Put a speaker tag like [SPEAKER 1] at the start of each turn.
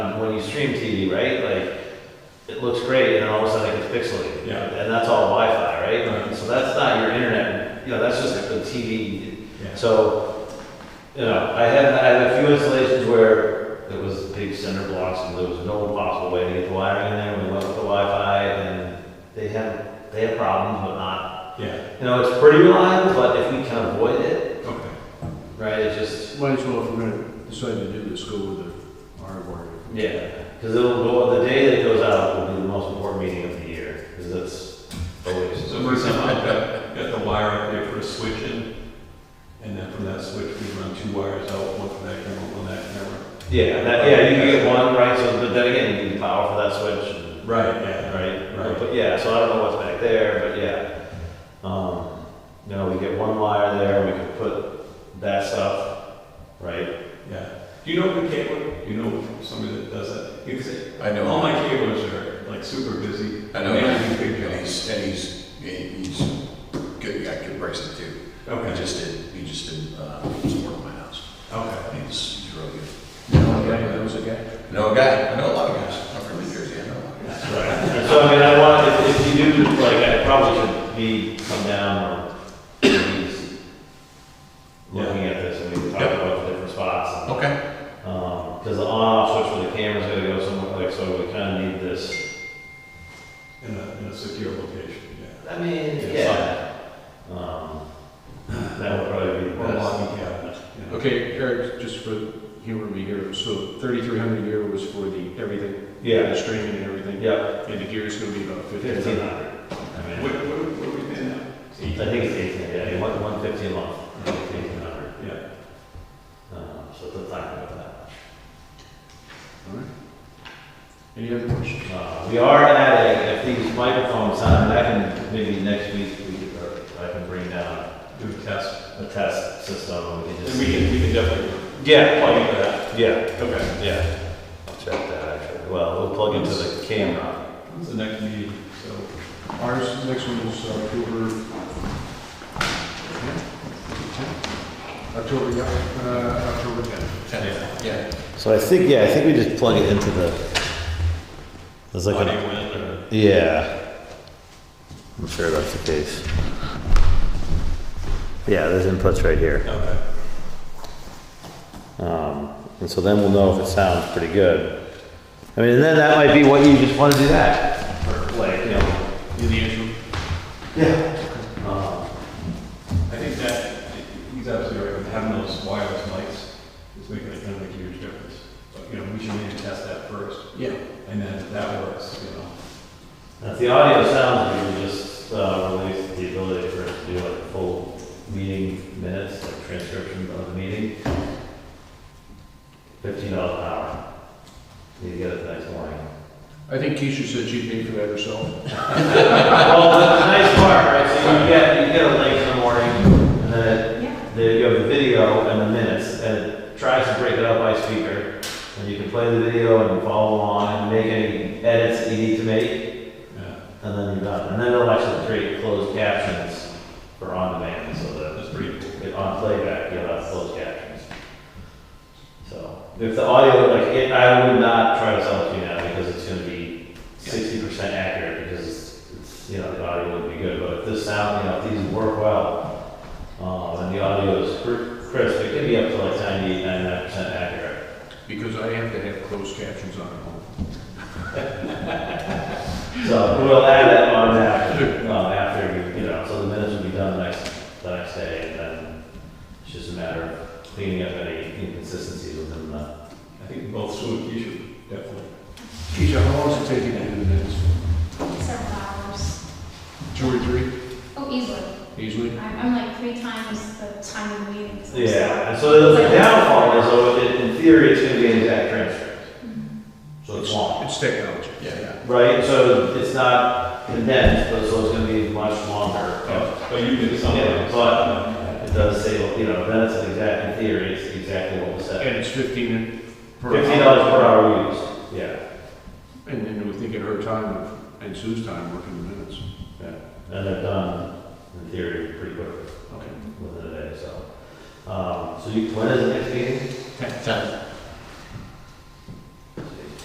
[SPEAKER 1] stream TV, right? Like, it looks great, and then all of a sudden it gets pixelated.
[SPEAKER 2] Yeah.
[SPEAKER 1] And that's all Wi-Fi, right?
[SPEAKER 2] Right.
[SPEAKER 1] So that's not your internet, you know, that's just the TV.
[SPEAKER 2] Yeah.
[SPEAKER 1] So, you know, I had, I had a few installations where it was big cinder blocks, and there was no possible way to get the wiring in there. We went with the Wi-Fi, and they have, they have problems, but not,
[SPEAKER 2] Yeah,
[SPEAKER 1] you know, it's pretty reliable, but if we can avoid it,
[SPEAKER 2] okay.
[SPEAKER 1] right, it just,
[SPEAKER 3] Might as well, if we're gonna decide to do this, go with the hardware.
[SPEAKER 1] Yeah, because it'll go, the day that goes out will be the most important meeting of the year, because that's always.
[SPEAKER 2] So for example, I've got, got the wire up there for a switch in, and then from that switch, we run two wires out, one for that camera, one for that camera.
[SPEAKER 1] Yeah, that, yeah, you can get one, right, so, but then again, you need power for that switch, and-
[SPEAKER 2] Right, yeah,
[SPEAKER 1] right?
[SPEAKER 2] Right.
[SPEAKER 1] But yeah, so I don't know what's back there, but yeah. Um, you know, we get one wire there, we could put that stuff, right?
[SPEAKER 2] yeah. Do you know the cable, do you know somebody that does that? Because
[SPEAKER 4] I know.
[SPEAKER 2] all my cablers are like super busy.
[SPEAKER 4] I know,
[SPEAKER 2] They
[SPEAKER 4] and
[SPEAKER 2] have these big jobs.
[SPEAKER 4] he's, and he's, and he's good, I could brace it too. He
[SPEAKER 2] Okay,
[SPEAKER 4] just did, he just did, uh, some work at my house.
[SPEAKER 2] okay.
[SPEAKER 4] And He's, he's really
[SPEAKER 3] That
[SPEAKER 4] good.
[SPEAKER 3] was a guy.
[SPEAKER 4] I know a guy, I know a lot of guys, I'm from New Jersey, I know a lot of guys.
[SPEAKER 1] And so, I mean, I want, if, if you do, like, I probably should be, come down, or maybe s- looking at this, and we can talk
[SPEAKER 4] Yeah.
[SPEAKER 1] about the different spots. and-
[SPEAKER 4] Okay,
[SPEAKER 1] Because Um, the on-off switch for the camera's gotta go somewhere, like, so we kinda need this.
[SPEAKER 2] In a, in a secure location, yeah.
[SPEAKER 1] I mean,
[SPEAKER 2] yeah.
[SPEAKER 1] Um, that would probably be the
[SPEAKER 2] Or a
[SPEAKER 1] best.
[SPEAKER 2] locking cabinet, you know.
[SPEAKER 3] Okay, Eric, just for humor me here, so thirty-three hundred a year was for the everything?
[SPEAKER 1] Yeah,
[SPEAKER 3] The streaming and everything?
[SPEAKER 1] yeah,
[SPEAKER 3] And the gear's gonna be about
[SPEAKER 1] fifteen
[SPEAKER 3] fifteen?
[SPEAKER 1] hundred. I
[SPEAKER 2] What,
[SPEAKER 1] mean,
[SPEAKER 2] what, what are we paying now?
[SPEAKER 1] I think it's eighteen, yeah, one, one fifty a month, eighteen hundred.
[SPEAKER 2] Yeah,
[SPEAKER 1] Um, so it's not gonna go that
[SPEAKER 3] All right. Any other questions?
[SPEAKER 1] much. Uh, we are adding, if these microphones sound, I can, maybe next week, we could, or I can bring down
[SPEAKER 2] do a test.
[SPEAKER 1] a test system, and we can
[SPEAKER 2] And
[SPEAKER 1] just.
[SPEAKER 2] we can, we can definitely
[SPEAKER 1] Yeah,
[SPEAKER 2] plug into
[SPEAKER 1] plug
[SPEAKER 2] that.
[SPEAKER 1] in, yeah.
[SPEAKER 2] Okay.
[SPEAKER 1] Yeah, I'll check that actually. Well, we'll plug into the camera.
[SPEAKER 2] When's the next meeting? So,
[SPEAKER 3] Ours, next one is uh, October. October, yeah, uh, October tenth.
[SPEAKER 2] yeah.
[SPEAKER 4] yeah.
[SPEAKER 1] So I think, yeah, I think we just plug it into the, there's like
[SPEAKER 2] Audio
[SPEAKER 1] a,
[SPEAKER 2] in or?
[SPEAKER 1] yeah. I'm sure that's the case. Yeah, there's inputs right here.
[SPEAKER 2] Okay.
[SPEAKER 1] Um, and so then we'll know if it sounds pretty good. I mean, and then that might be what you just wanna do that, or like, you know.
[SPEAKER 2] In the intro?
[SPEAKER 1] Yeah. Um,
[SPEAKER 2] I think that, he's absolutely right, with having those wireless mics is making a kind of a huge difference. But, you know, we should maybe test that first,
[SPEAKER 4] Yeah.
[SPEAKER 2] and then if that works, you know.
[SPEAKER 1] If the audio sounds, we just uh, release the ability for us to do like full meeting minutes, like transcription of the meeting. Fifteen dollars an hour. You get it the next morning.
[SPEAKER 3] I think Keisha said she paid for that herself.
[SPEAKER 1] Well, that's the nice part, right? So you get, you get a link in the morning, and then
[SPEAKER 5] Yeah,
[SPEAKER 1] it- there you have the video and the minutes, and it tries to break it up by speaker. And you can play the video and follow along and make any edits that you need to make.
[SPEAKER 2] Yeah,
[SPEAKER 1] And then you're done. And then it'll actually create closed captions for on demand, so that
[SPEAKER 2] that's pretty cool.
[SPEAKER 1] if on playback, you'll have closed captions. So if the audio, like, it, I would not try to sell it to you now because it's gonna be sixty percent accurate because it's, it's, you know, the audio wouldn't be good, but if this sound, you know, if these work well, um, and the audio is cr- crisp, it can be up to like 98, 99 percent accurate.
[SPEAKER 3] Because I have to have closed captions on at home.
[SPEAKER 1] So we'll add that on after, um, after you, you know, so the minutes will be done the next, the next day, and then it's just a matter of cleaning up any inconsistencies within the.
[SPEAKER 2] I think both Sue and Keisha definitely.
[SPEAKER 3] Keisha, how long does it take you to do the minutes?
[SPEAKER 5] several hours.
[SPEAKER 3] Two or three,
[SPEAKER 5] Oh, easily.
[SPEAKER 3] easily?
[SPEAKER 5] I'm, I'm like three times the time of the meeting. so-
[SPEAKER 1] Yeah, and so the downfall is, though, it- in theory, it's gonna be an exact transcript,
[SPEAKER 5] Mhm.
[SPEAKER 1] so it's long.
[SPEAKER 3] It's technology.
[SPEAKER 4] Yeah,
[SPEAKER 1] Right, so it's not condensed, but so it's gonna be much longer.
[SPEAKER 2] But you did something.
[SPEAKER 1] Yeah, but it does say, you know, that's an exact, in theory, it's exactly what was said.
[SPEAKER 3] And it's fifteen per hour.
[SPEAKER 1] Fifteen dollars per hour used, yeah.
[SPEAKER 3] And then we think at her time of- and Sue's time working the minutes.
[SPEAKER 1] And they're done, in theory, pretty quick
[SPEAKER 3] Okay.
[SPEAKER 1] within a day, so. Um, so you, when is the next meeting?
[SPEAKER 4] yeah.